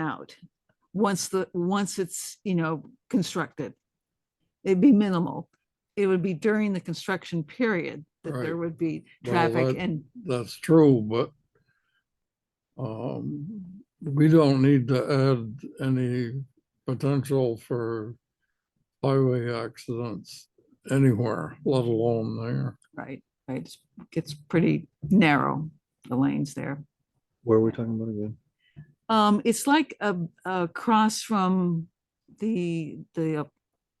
out. Once the, once it's, you know, constructed. It'd be minimal. It would be during the construction period that there Right. would be Well, traffic that- and, that's true, but um, we don't need to add any potential for highway accidents anywhere, let alone there. right, right, it's- gets pretty narrow, the lanes there. Where are we talking about again? Um, it's like a, across from the, the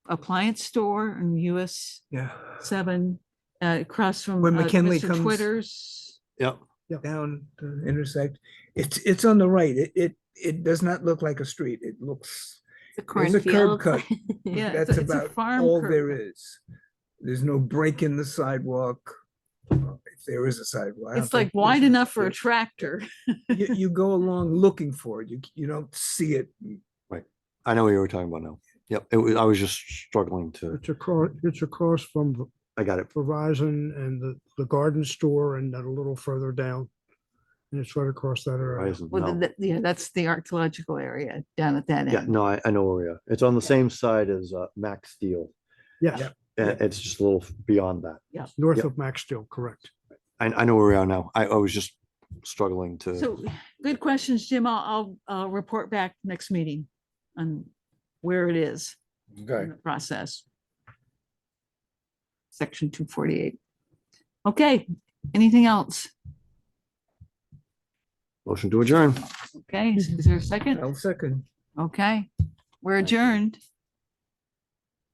appliance store in US Yeah. seven, uh, across from. When uh, McKinley Mr. comes- Twitters. Yep. Down to intersect. It's, it's on the right. It, it, it does not look like a street. It looks, The There's a curb cornfields. cut. Yeah, it's that's a- it's a about farm all curb there cut. is. There's no break in the sidewalk. uh, If there is a sidewalk. I don't It's like think there's wide a- enough for a there- tractor. You, you go along looking for it. You, you don't see it. I know what you were talking about now. Yep, it was, I was just struggling to, It's across, it's across from V- I got it. Verizon and the, the garden store and then a little further down. And it's right across that area. Verizon, Well, no. th- th- yeah, that's the archaeological area down at that Yeah, end. no, I, I know where we are. It's on the same side as uh, Max Steel. Yes, Yeah. Uh, It's just a little beyond that. north Yep. of Maxdale, correct. I, I know where we are now. I, I was just struggling to, So good questions, Jim. I'll, I'll, uh report back next meeting on where it is Okay. in the process. Section two forty-eight. Okay, anything else? motion to adjourn. Okay, is is there a second? I'll second. Okay, we're adjourned.